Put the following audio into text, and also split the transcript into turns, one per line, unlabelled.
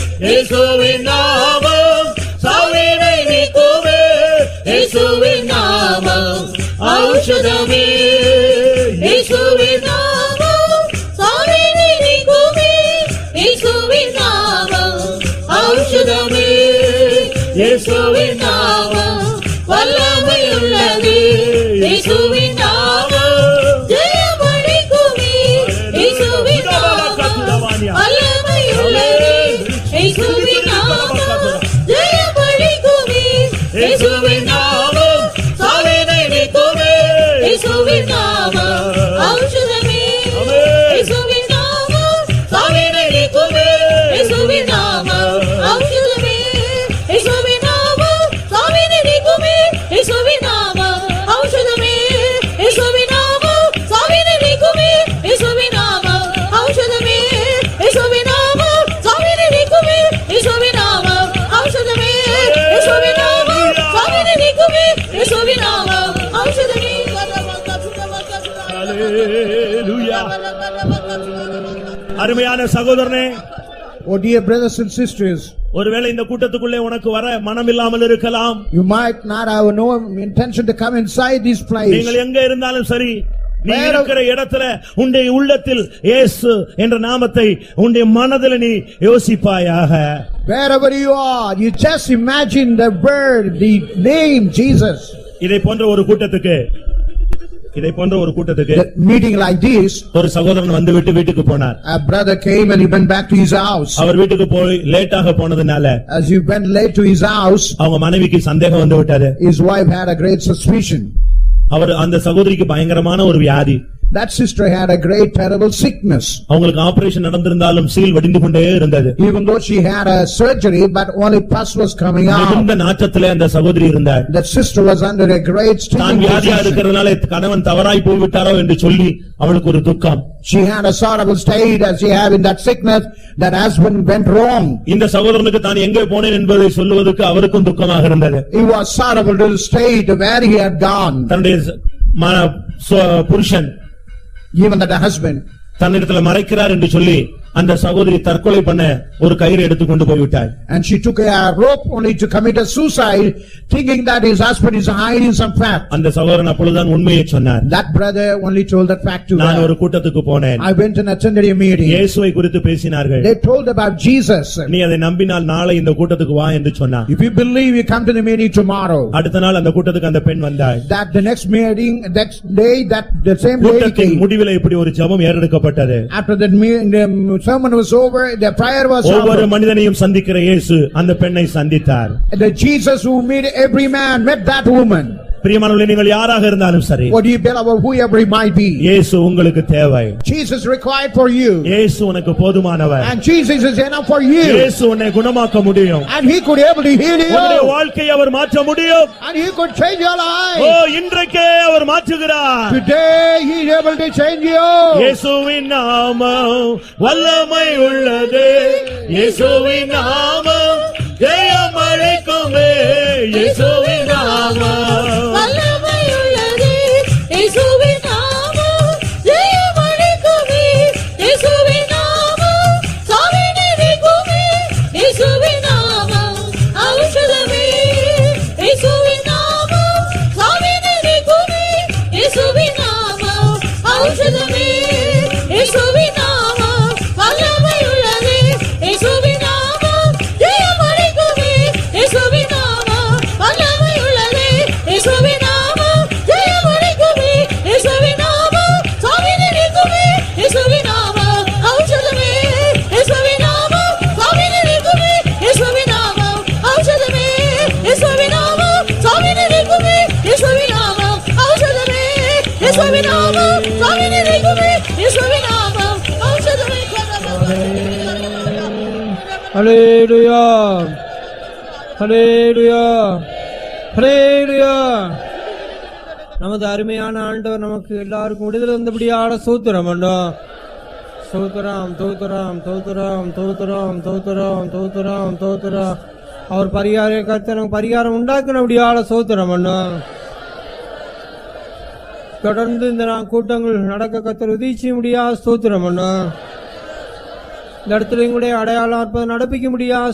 இயேசுவின் நாமம் சாவினை நீக்குமே இயேசுவின் நாமம் ஔஷதமே
இயேசுவின் நாமம் சாவினை நீக்குமே இயேசுவின் நாமம் ஔஷதமே
இயேசுவின்
நாமம் வல்லமை உள்ளது இயேசுவின் நாமம் ஜெயமளிக்குமே இயேசுவின் நாமம் வல்லமை உள்ளது இயேசுவின் நாமம் ஜெயமளிக்குமே
இயேசுவின்
இயேசுவின் நாமம்
நாமம் சாவினை நீக்குமே
இயேசுவின் நாமம் ஔஷதமே இயேசுவின் நாமம்
சாவினை நீக்குமே
இயேசுவின் நாமம் ஔஷதமே இயேசுவின் நாமம் சாவினை நீக்குமே இயேசுவின் நாமம் ஔஷதமே இயேசுவின் நாமம் சாவினை நீக்குமே இயேசுவின் நாமம் ஔஷதமே இயேசுவின் நாமம் சாவினை நீக்குமே இயேசுவின் நாமம் ஔஷதமே இயேசுவின் நாமம் சாவினை நீக்குமே இயேசுவின் நாமம் ஔஷதமே
Hallelujah. அருமையான சகோதரனே
Oh, dear brothers and sisters,
ஒருவேளை இந்த கூட்டத்துக்குள்ளே உனக்கு வர மனம் இல்லாமல் இருக்கலாம்
you might not have no intention to come inside this place.
நீங்கள் எங்க இருந்தாலும் சரி நீ
Where-
இருக்கிற இடத்துல உன்னுடைய உள்ளத்தில் இயேசு என்ற நாமத்தை உன்னுடைய மனதில் நீ யோசிப்பாயாக
Wherever you are, you just imagine the word, the name Jesus.
இதை போன்ற ஒரு கூட்டத்துக்கு இதை போன்ற ஒரு கூட்டத்துக்கு
The meeting like this,
ஒரு சகோதரன் வந்து விட்டு வீட்டுக்கு போனார்
a brother came and he went back to his house.
அவர் வீட்டுக்கு போய் லேட்டாக போனதுனால
As he went late to his house,
அவங்க மனைவிக்கு சந்தேகம் வந்து விட்டாரு
his wife had a great suspicion.
அவர் அந்த சகோதரிக்கு பயங்கரமான ஒரு வியாதி
That sister had a great terrible sickness.
அவங்களுக்கு ஆபரேஷன் நடந்திருந்தாலும் சீல் வடிந்து கொண்டே இருந்தது
Even though she had a surgery, but only pus was coming out.
மிகுந்த நாற்றத்திலே அந்த சகோதரி இருந்தார்
That sister was under a great
தான்
stinging
வியாதியா
position.
இருக்கிறதுனால கணவன் தவறாய் போய்விட்டாரோ என்று சொல்லி அவளுக்கு ஒரு துக்கம்
She had a sorrowful state as she had in that sickness, that husband went wrong.
இந்த சகோதரனுக்கு தான் எங்கே போனேன் என்பதை சொல்லுவதற்கு அவருக்கும் துக்கமாக இருந்தது
He was sorrowful to the state where he had gone,
தன்னுடைய ச- ம- சொ- புருஷன்
even that husband.
தன்னிடத்துல மறைக்கிறார் என்று சொல்லி அந்த சகோதரி தற்கொலை பண்ண ஒரு கயிறு எடுத்து கொண்டு போய்விட்டாள்
And she took a rope only to commit a suicide, thinking that his husband is hiding some fact.
அந்த சகோதரன் அப்பொழுதுதான் உண்மையை சொன்னார்
That brother only told that fact to
நான்
her.
ஒரு கூட்டத்துக்கு போனேன்
I went and attended a meeting.
இயேசுவை குறித்து பேசினார்கள்
They told about Jesus.
நீ அதை நம்பினால் நாளை இந்த கூட்டத்துக்கு வா என்று சொன்னார்
If you believe, you come to the meeting tomorrow.
அடுத்த நாள் அந்த கூட்டத்துக்கு அந்த பெண் வந்தாள்
That the next meeting, next day, that the same lady
கூட்டத்தின்
came.
முடிவிலே இப்படி ஒரு ஜெபம் ஏறெடுக்கப்பட்டது
After that me- the sermon was over, the prayer was
ஒவ்வொரு
over.
மனிதனையும் சந்திக்கிற இயேசு அந்த பெண்ணை சந்தித்தார்
The Jesus who made every man met that woman.
பிரியமானவர்களே நீங்கள் யாராக இருந்தாலும் சரி
What do you believe or whoever he might be?
இயேசு உங்களுக்கு தேவை
Jesus required for you.
இயேசு உனக்கு போதுமானவர்
And Jesus is enough for you.
இயேசு உன்னை குணமாக்க முடியும்
And he could able to heal
உன்னுடைய
you.
வாழ்க்கையை அவர் மாற்ற முடியும்
And he could change your
O
life.
இன்றைக்கே அவர் மாற்றுகிறார்
Today he is able to change you.
இயேசுவின் நாமம் வல்லமை உள்ளது இயேசுவின் நாமம் ஜெயம் அழைக்குமே இயேசுவின் நாமம்
வல்லமை உள்ளது இயேசுவின் நாமம் ஜெயமளிக்குமே இயேசுவின் நாமம் சாவினை நீக்குமே இயேசுவின் நாமம் ஔஷதமே இயேசுவின் நாமம் சாவினை நீக்குமே இயேசுவின் நாமம் ஔஷதமே இயேசுவின் நாமம் வல்லமை உள்ளது இயேசுவின் நாமம் ஜெயமளிக்குமே இயேசுவின் நாமம் வல்லமை உள்ளது இயேசுவின் நாமம் ஜெயமளிக்குமே இயேசுவின் நாமம் சாவினை நீக்குமே இயேசுவின் நாமம் ஔஷதமே இயேசுவின் நாமம் சாவினை நீக்குமே இயேசுவின் நாமம் ஔஷதமே இயேசுவின் நாமம் சாவினை நீக்குமே இயேசுவின் நாமம் ஔஷதமே இயேசுவின் நாமம் சாவினை நீக்குமே இயேசுவின் நாமம் ஔஷதமே
Hallelujah. Hallelujah. Hallelujah. நமது அருமையான ஆண்டவர் நமக்கு எல்லாருக்கும் விடுதலை வந்தபடியான சோத்திரம் அண்டோம் சோத்திரம் தோத்திரம் தோத்திரம் தோத்திரம் தோத்திரம் தோத்திரம் தோத்திரம் அவர் பரிகார கருத்து நமக்கு பரிகாரம் உண்டாக்கினபடியான சோத்திரம் அண்டோம் தொடர்ந்து இந்த நா- கூட்டங்கள் நடக்க கத்தர் உதவிச்சு முடியா சோத்திரம் அண்ணா இந்த இடத்துல எங்களுடைய அடையாளம் அற்புதம் நடப்பிக்க முடியா